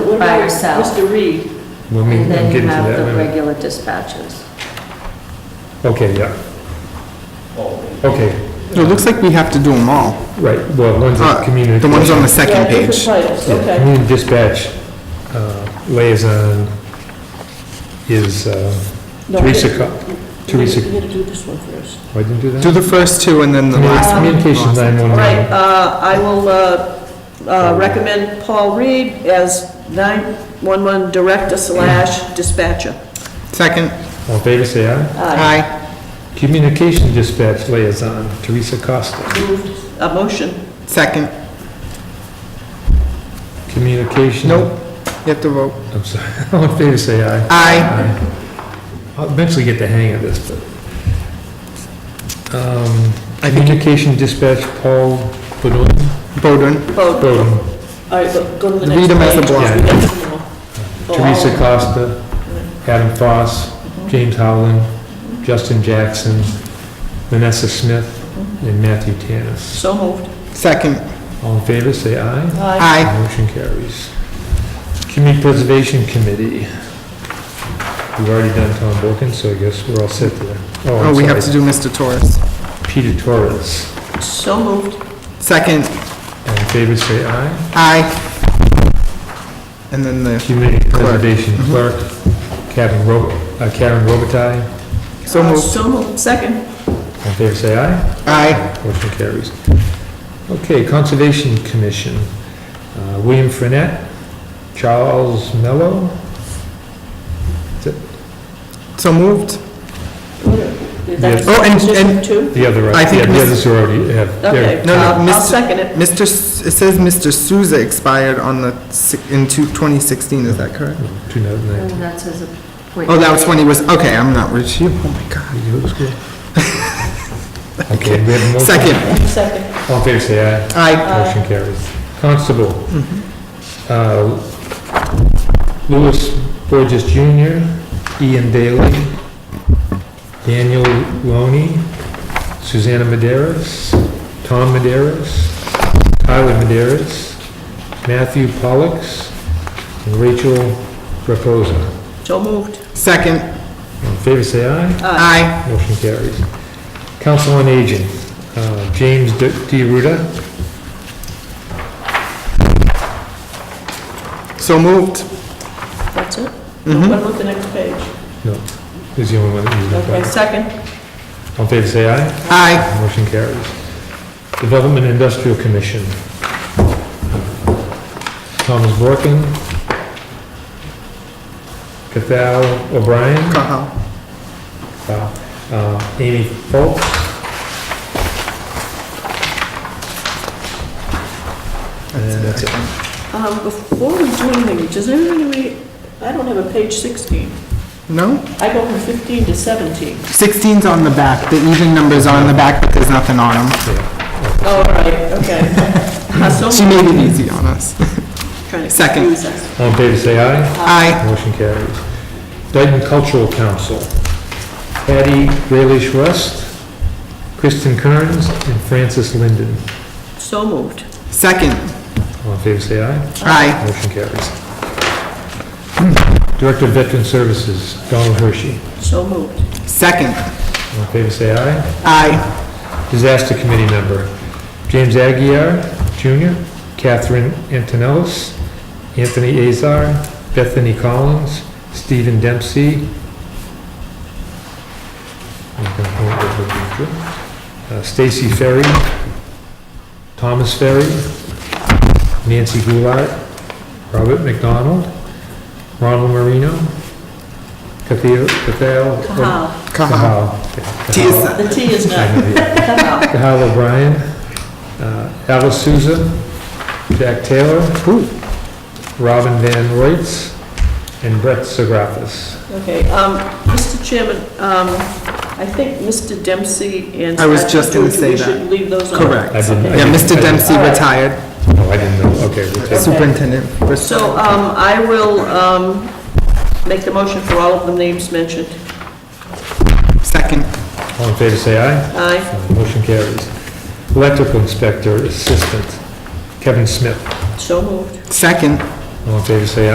What by about herself. Mr. Reed? When we And I'm then you getting to have that. the in a minute. regular dispatchers. Okay, yeah, Oh, okay, It looks like we have to do them all. right, well, one's a Uh, community. The ones on the Yeah, second different page. titles, Yeah, okay. Community dispatch uh, liaison is uh, No, Teresa, wait, Co- You gotta- Teresa, You gotta do this one first. oh, I didn't do that? Do the first two and then the Communi- last. Communications All right, 911. uh, I will uh, uh, recommend Paul Reed as 911 Director slash dispatcher. Second. All in favor, say aye. Aye. Communication dispatch liaison, Teresa Costa. Moved, a motion. Second. Communication. Nope. You have to vote. I'm sorry, all in favor, say aye. Aye. I'll eventually get the hang of this, but. um, I think you- Communication dispatch, Paul Bowden. Bowden. Vote. Bowden, All right, go- go to the next page. Read them as a block. We got some more. Oh, Teresa Costa, Adam Foss, James Howland, Justin Jackson, Vanessa Smith, and Matthew Tanis. So moved. Second. All in favor, say aye. Aye. Aye. Motion carries. Community Preservation Committee. We've already done Tom Wilkins, so I guess we're all set there. Oh, we I'm have to sorry, do Mr. Torres. Peter Torres. So moved. Second. All in favor, say aye. Aye. And then the, Community Clerk. Mm-hmm. Preservation Clerk, Karen Ro- uh, Karen Robitaille. so Uh, moved. So moved, second. All in favor, say aye. Aye. Motion carries. Okay, Conservation Commission, uh, William Frenette, Charles Mello. So moved. That's Oh, and- and- Two? The other, uh, I yeah, think the Miss- others are already have. they're- Okay, Uh, No, no, I'll I'll Mr. second it. Mr., S- it says Mr. Souza expired on the, si- in two- 2016, is that correct? 2019. And that's his appointment. Oh, that was when he was, okay, I'm not rich. You- Oh, my God. You go to school? Okay, we have a motion. Second. Second. All in favor, say aye. Aye. Motion carries. Constable. Uh, Louis Burgess Jr., Ian Daly, Daniel Loney, Susanna Maderas, Tom Maderas, Tyler Maderas, Matthew Pollux, and Rachel Reposa. So moved. Second. All in favor, say aye. Aye. Motion carries. Council on Aging, uh, James D. Ruda, So moved. That's it? Mm-hmm. No, What about the next page? no, is the only one that needs Okay, that. second. All in favor, say aye. Aye. Motion carries. Development Industrial Commission. Thomas Borkin. Cathal O'Brien. Cahill. uh, Amy Foltz. And that's it. Um, Before we do anything, does anybody, I don't have a page 16. No? I go from 15 to 17. 16's on the back. The even number's on the back, but there's nothing on them. Oh, all right, okay. Uh, So She moved. made it easy on us. Trying to Second. confuse us. All in favor, say aye. Aye. Motion carries. Dayton Cultural Council. Patty Graylish Rust, Kristen Kearns, and Frances Linden. So moved. Second. All in favor, say aye. Aye. Motion carries. Hmm. Director of Veteran Services, Donald Hershey. So moved. Second. All in favor, say aye. Aye. Disaster Committee member, James Aguirre Jr., Catherine Antonellis, Anthony Azar, Bethany Collins, Stephen Dempsey, uh, Stacy Ferry, Thomas Ferry, Nancy Goulart, Robert McDonald, Ronald Marino, Cathal, Cathal, Kahal. Cahill. Cahal. Tis. The T is not Kahal. Kahal O'Brien, uh, Alice Souza, Jack Taylor, Robin Van Reitz, and Brett Segraffis. Okay, um, Mr. Chairman, um, I think Mr. Dempsey and. I was just gonna Statute, say We that. should leave those on. Correct. I didn't- I Yeah, didn't- Mr. I Dempsey Alright. retired, didn't- Oh, I didn't know, okay. we'll take- superintendent. So um, I will um, make the motion for all of the names mentioned. Second. All in favor, say aye. Aye, Motion carries. Electrical Inspector Assistant, Kevin Smith. so moved. Second. All in favor, say aye.